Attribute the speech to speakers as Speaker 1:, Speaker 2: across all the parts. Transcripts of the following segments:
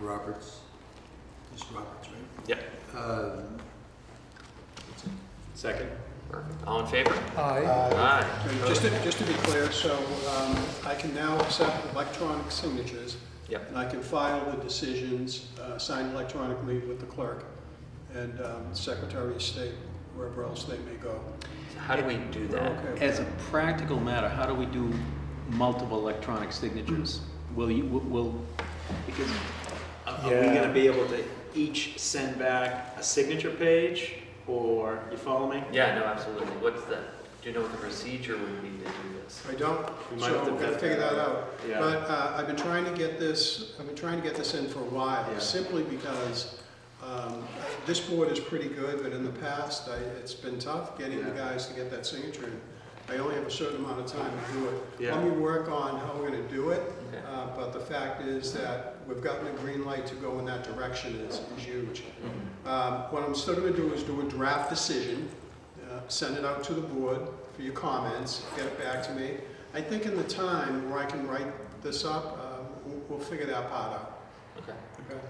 Speaker 1: Roberts, just Roberts, right?
Speaker 2: Yep.
Speaker 1: Uh,
Speaker 3: Um,
Speaker 2: Second. Perfect. All in favor? Aye.
Speaker 4: And Just to, just to be clear, so um, I can now accept electronic signatures.
Speaker 2: Yep.
Speaker 4: And I can file the decisions uh, signed electronically with the clerk and um, Secretary of State, wherever else they may go.
Speaker 2: So How do we do that?
Speaker 4: Okay.
Speaker 5: As a practical matter, how do we do multiple electronic signatures? Will you, will- will, because
Speaker 2: Are are we gonna be able to each send back a signature page, or, you follow me? Yeah, no, absolutely. What's the, do you know what the procedure would be to do this?
Speaker 4: I don't,
Speaker 2: We might
Speaker 4: so
Speaker 2: have to
Speaker 4: we're gonna
Speaker 2: vet
Speaker 4: figure
Speaker 2: that
Speaker 4: that out.
Speaker 2: Yeah.
Speaker 4: But uh, I've been trying to get this, I've been trying to get this in for a
Speaker 2: Yeah.
Speaker 4: while, simply because um, this board is pretty good, but in the past, I, it's been tough getting the
Speaker 2: Yeah.
Speaker 4: guys to get that signature in. I only have a certain amount of time to do it.
Speaker 2: Yeah.
Speaker 4: Let me work on how we're gonna do it,
Speaker 2: Okay.
Speaker 4: uh, but the fact is that we've gotten a green light to go in that direction is is huge.
Speaker 2: Mm-hmm.
Speaker 4: Um, What I'm still gonna do is do a draft decision, uh, send it out to the board for your comments, get it back to me. I think in the time where I can write this up, uh, we'll- we'll figure that part out.
Speaker 2: Okay.
Speaker 4: Okay.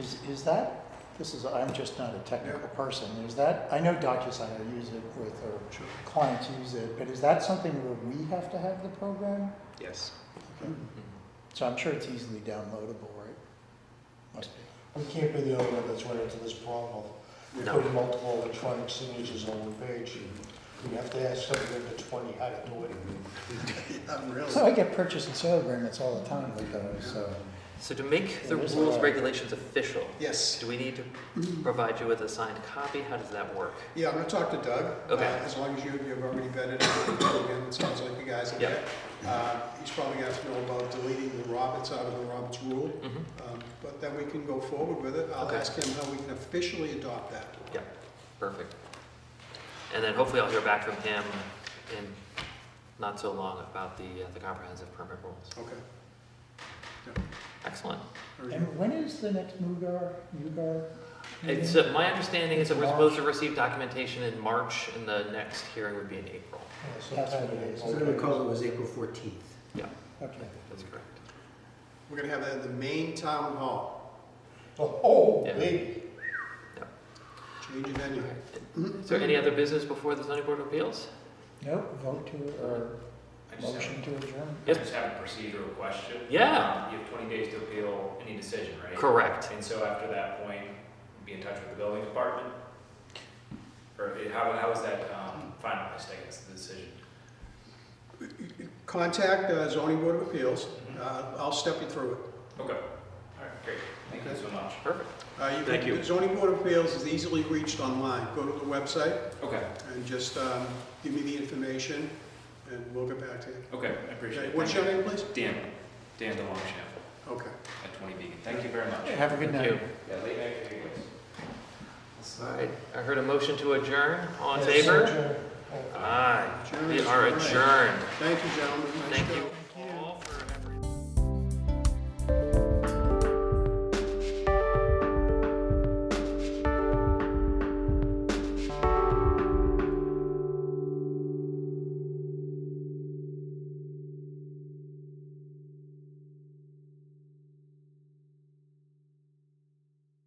Speaker 6: Is, is that, this is, I'm just not a technical person, is that, I know DocuSign, I use it with, or clients use it, but is that something where we have to have the program?
Speaker 5: Yes.
Speaker 2: Mm-hmm.
Speaker 6: So I'm sure it's easily downloadable, right? Must be.
Speaker 3: We can't be the only one that's run into this problem of
Speaker 2: No.
Speaker 3: putting multiple electronic signatures on one page. We have to ask somebody under twenty how to do it.
Speaker 4: I'm really-
Speaker 6: So I get purchase and sale agreements all the time with those, so.
Speaker 2: So to make the
Speaker 6: There's a
Speaker 2: rules
Speaker 6: lot.
Speaker 2: regulations official,
Speaker 4: Yes,
Speaker 2: do we need to provide you with a signed copy? How does that work?
Speaker 4: yeah, I'm gonna talk to Doug. uh,
Speaker 2: Okay.
Speaker 4: As long as you, you've already vetted it, again, it sounds like you guys have.
Speaker 2: Yeah.
Speaker 4: Uh, He's probably gonna have to know about deleting the Roberts out of the Roberts rule.
Speaker 2: Mhm.
Speaker 4: Um, But then we can go forward with it. I'll
Speaker 2: Okay.
Speaker 4: ask him how we can officially adopt that.
Speaker 2: Yeah, perfect. And then hopefully I'll hear back from him in not so long about the, uh, the comprehensive permit rules.
Speaker 4: Okay.
Speaker 2: Excellent.
Speaker 4: Very good.
Speaker 6: And when is the next MUGAR, UGAR?
Speaker 7: Mm-hmm.
Speaker 2: It's,
Speaker 6: meeting?
Speaker 2: uh, my understanding is that we're supposed to receive documentation in March, and the next hearing would be in April.
Speaker 3: Uh,
Speaker 6: That's what
Speaker 3: sometime in
Speaker 6: it is.
Speaker 1: As I
Speaker 3: April.
Speaker 1: recall, it was April 14th.
Speaker 6: Okay.
Speaker 2: That's correct.
Speaker 4: We're gonna have that at the main town hall,
Speaker 3: Oh,
Speaker 2: Yeah.
Speaker 3: baby.
Speaker 4: change of venue.
Speaker 2: Is there any other business before the zoning board of appeals?
Speaker 6: Nope, vote to, or
Speaker 7: I just have,
Speaker 6: motion to adjourn.
Speaker 7: I just have a procedural question.
Speaker 2: Yeah.
Speaker 7: Um, You have twenty days to appeal any decision, right?
Speaker 2: Correct.
Speaker 7: And so after that point, be in touch with the building department? Or it- how, how is that um, finalized, I guess, the decision?
Speaker 4: Contact uh, zoning board of appeals. Uh, I'll step you through it.
Speaker 7: Mm-hmm. Okay, all right, great, thank you
Speaker 4: Okay.
Speaker 7: so much.
Speaker 2: Perfect.
Speaker 4: Uh, can-
Speaker 2: Thank you.
Speaker 4: Zoning board of appeals is easily reached online. Go to the website
Speaker 7: Okay,
Speaker 4: and just um, give me the information and we'll get back to you.
Speaker 7: okay, I appreciate
Speaker 4: Okay,
Speaker 7: it.
Speaker 4: What's your
Speaker 7: Thank
Speaker 4: name, please?
Speaker 7: you. Dan, Dan DeLongchamp
Speaker 4: Okay.
Speaker 7: at twenty Beacon, thank you very much.
Speaker 6: Have a good
Speaker 2: Thank
Speaker 6: night.
Speaker 2: you.
Speaker 7: Yeah, late night, anyways.
Speaker 2: All right, I heard a motion to adjourn. All in
Speaker 3: Yes,
Speaker 2: favor?
Speaker 3: adjourn. Oh.
Speaker 2: Aye. We
Speaker 4: Adjourn.
Speaker 2: are adjourned.
Speaker 4: Thank you, gentlemen. Nice
Speaker 2: Thank
Speaker 4: job.
Speaker 2: you.